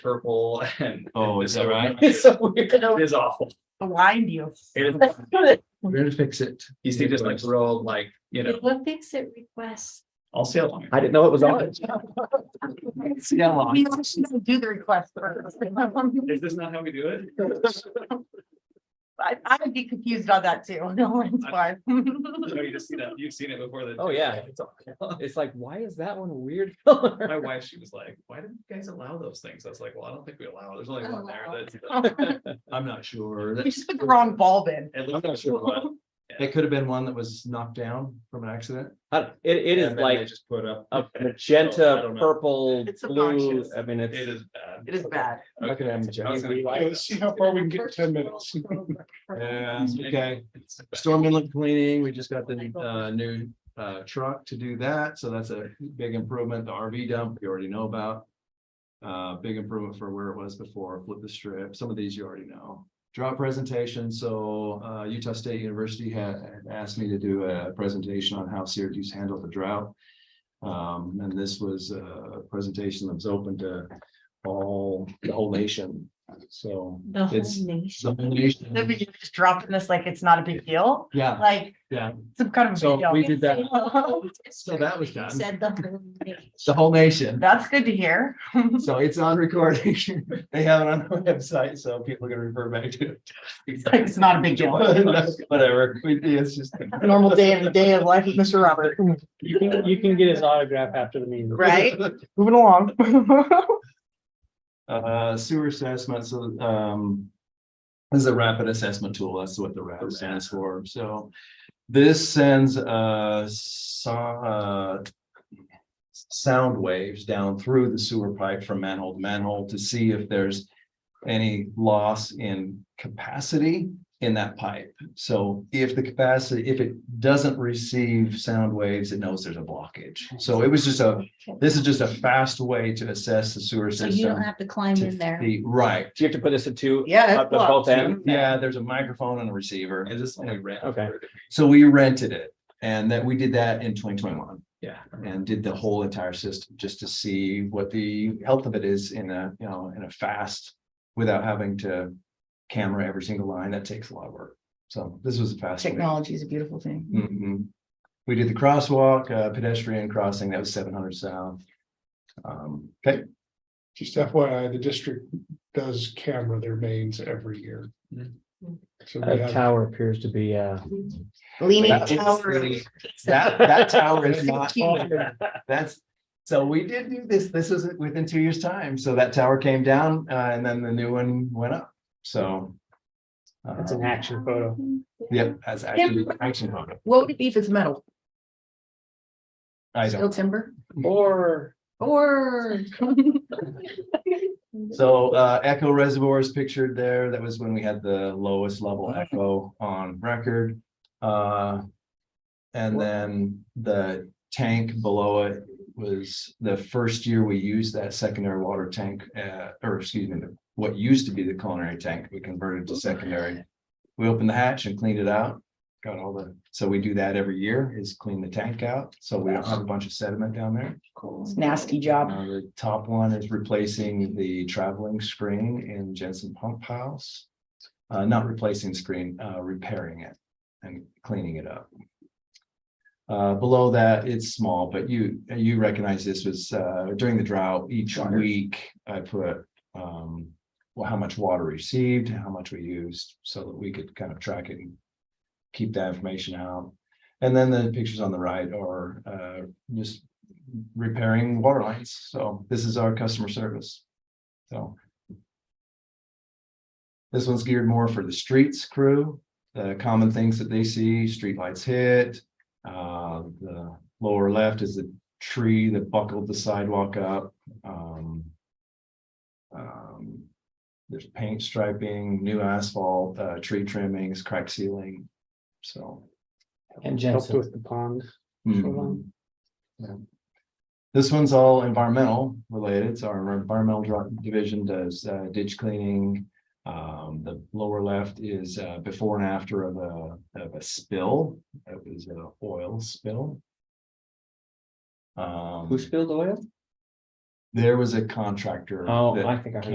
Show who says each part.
Speaker 1: purple and.
Speaker 2: Oh, is that right?
Speaker 1: It's so weird.
Speaker 3: It'll
Speaker 1: It is awful.
Speaker 3: blind you.
Speaker 1: It is,
Speaker 4: We're gonna fix it.
Speaker 1: you see just like real like, you know,
Speaker 3: What fix it requests?
Speaker 1: I'll see how long.
Speaker 4: I didn't know it was on. it.
Speaker 2: See how long?
Speaker 3: We actually do the request first.
Speaker 1: Is this not how we do it?
Speaker 3: I, I would be confused on that too. No, it's why.
Speaker 1: No, you just see that, you've seen it before. the-
Speaker 4: Oh, yeah.
Speaker 1: It's all-
Speaker 4: It's like, why is that one a weird color?
Speaker 1: My wife, she was like, why didn't you guys allow those things? I was like, well, I don't think we allow, it. there's only one there that's.
Speaker 2: I'm not sure.
Speaker 3: We just put the wrong bulb in.
Speaker 1: At
Speaker 2: I'm not
Speaker 1: least-
Speaker 2: sure what. It could have been one that was knocked down from an accident.
Speaker 4: I don't- It, it is
Speaker 1: And then they
Speaker 4: like
Speaker 1: Just put up.
Speaker 4: a
Speaker 1: I
Speaker 4: magenta,
Speaker 1: don't know.
Speaker 4: purple,
Speaker 3: It's
Speaker 4: blue.
Speaker 3: obnoxious.
Speaker 4: I mean,
Speaker 1: It
Speaker 4: it's.
Speaker 1: is bad.
Speaker 3: It is bad.
Speaker 1: Okay.
Speaker 4: Look at him, Jeff.
Speaker 1: I was gonna-
Speaker 5: Yeah, Let's see how far we can get in ten minutes.
Speaker 2: Yeah, okay.
Speaker 1: It's bad.
Speaker 2: Storm inlet cleaning, we just got the uh new uh truck to do that, so that's a big improvement. The RV dump, you already know about. Uh, big improvement for where it was before, flip the strip, some of these you already know. Drop presentation, so uh Utah State University had had asked me to do a presentation on how Syracuse handled the drought. Um, and this was uh, a presentation that was open to all, the whole nation, so.
Speaker 3: The
Speaker 2: whole It's-
Speaker 3: nation.
Speaker 2: the whole nation-
Speaker 3: They're just dropping this like it's not a big deal,
Speaker 2: Yeah,
Speaker 3: like.
Speaker 2: Yeah.
Speaker 3: Some kind of. a
Speaker 2: So
Speaker 3: big deal.
Speaker 2: we did that. So that was done.
Speaker 6: Said the whole name.
Speaker 2: the whole nation.
Speaker 3: That's good to hear.
Speaker 2: So it's on recording. They have it on the website, so people can refer back to
Speaker 3: Like, It's not a big deal.
Speaker 2: it. Whatever. We- It's just.
Speaker 3: Normal day in the day of life of Mr. Robert,
Speaker 5: You can, you can get his autograph after the meeting.
Speaker 3: right? Moving along.
Speaker 2: Uh, sewer assessment, so, um. This is a rapid assessment tool. That's what the RAP stands for. So this sends, uh, so, uh. Sound waves down through the sewer pipe from manhole to manhole to see if there's. Any loss in capacity in that pipe. So if the capacity, if it doesn't receive sound waves, it knows there's a blockage. So it was just a, this is just a fast way to assess the sewer
Speaker 6: So
Speaker 2: system.
Speaker 6: you don't have to climb
Speaker 2: to
Speaker 6: in there.
Speaker 2: the- Right.
Speaker 4: Do you have to put this in two?
Speaker 7: Uh,
Speaker 3: Yeah.
Speaker 4: Up to both ends?
Speaker 2: Yeah, there's a microphone and a receiver.
Speaker 1: Is this only red?
Speaker 4: Okay.
Speaker 2: So we rented it and that we did that in twenty twenty-one
Speaker 1: Yeah.
Speaker 2: and did the whole entire system just to see what the health of it is in a, you know, in a fast without having to camera every single line. That takes a lot of work. So this was a fast. way.
Speaker 3: Technology is a beautiful thing.
Speaker 2: Mhm. We did the crosswalk, uh, pedestrian crossing. That was seven hundred south. Um, okay,
Speaker 5: Just FYI, the district does camera their mains every year.
Speaker 1: Mhm.
Speaker 5: So we
Speaker 7: A
Speaker 5: have,
Speaker 7: tower appears to be, uh,
Speaker 3: Leaning
Speaker 2: That-
Speaker 3: tower. of-
Speaker 2: that, that tower is not. That's, so we did do this, this is within two years' time, so that tower came down, uh, and then the new one went up, so.
Speaker 7: it's an
Speaker 2: um,
Speaker 7: action photo.
Speaker 2: Yep, that's actually, action photo.
Speaker 6: What would it be if it's metal?
Speaker 2: I
Speaker 6: Steel
Speaker 2: don't,
Speaker 6: timber
Speaker 7: Or
Speaker 6: or?
Speaker 2: so, uh, Echo Reservoir is pictured there, that was when we had the lowest level echo on record. Uh, and then the tank below it was the first year we used that secondary water tank, uh, or excuse me, the- what used to be the culinary tank, we converted to secondary. We opened the hatch and cleaned it out, got all the, so we do that every year, is clean the tank out, so we don't have a bunch of sediment down there. Cool.
Speaker 3: Nasty job.
Speaker 2: Uh, the top one is replacing the traveling screen in Jensen Pump House. Uh, not replacing screen, uh, repairing it and cleaning it up. Uh, below that, it's small, but you, you recognize this was, uh, during the drought, each week I put, um. Well, how much water received, how much we used, so that we could kind of track it and keep that information out. And then the pictures on the right are, uh, just repairing water lines. So this is our customer service. So. This one's geared more for the streets crew, the common things that they see, streetlights hit. Uh, the lower left is the tree that buckled the sidewalk up. Um. um, There's paint striping, new asphalt, uh, tree trimmings, crack sealing. So.
Speaker 7: and
Speaker 2: Jensen.
Speaker 7: Jensen with the pond.
Speaker 2: mhm. This one's all environmental related, so our environmental dri- division does uh, ditch cleaning. Um, the lower left is uh, before and after of a, of a spill, that was an oil spill. Um,
Speaker 4: Who spilled oil?
Speaker 2: there was a contractor.
Speaker 7: Oh,
Speaker 2: that-
Speaker 4: Oh,
Speaker 7: I think I heard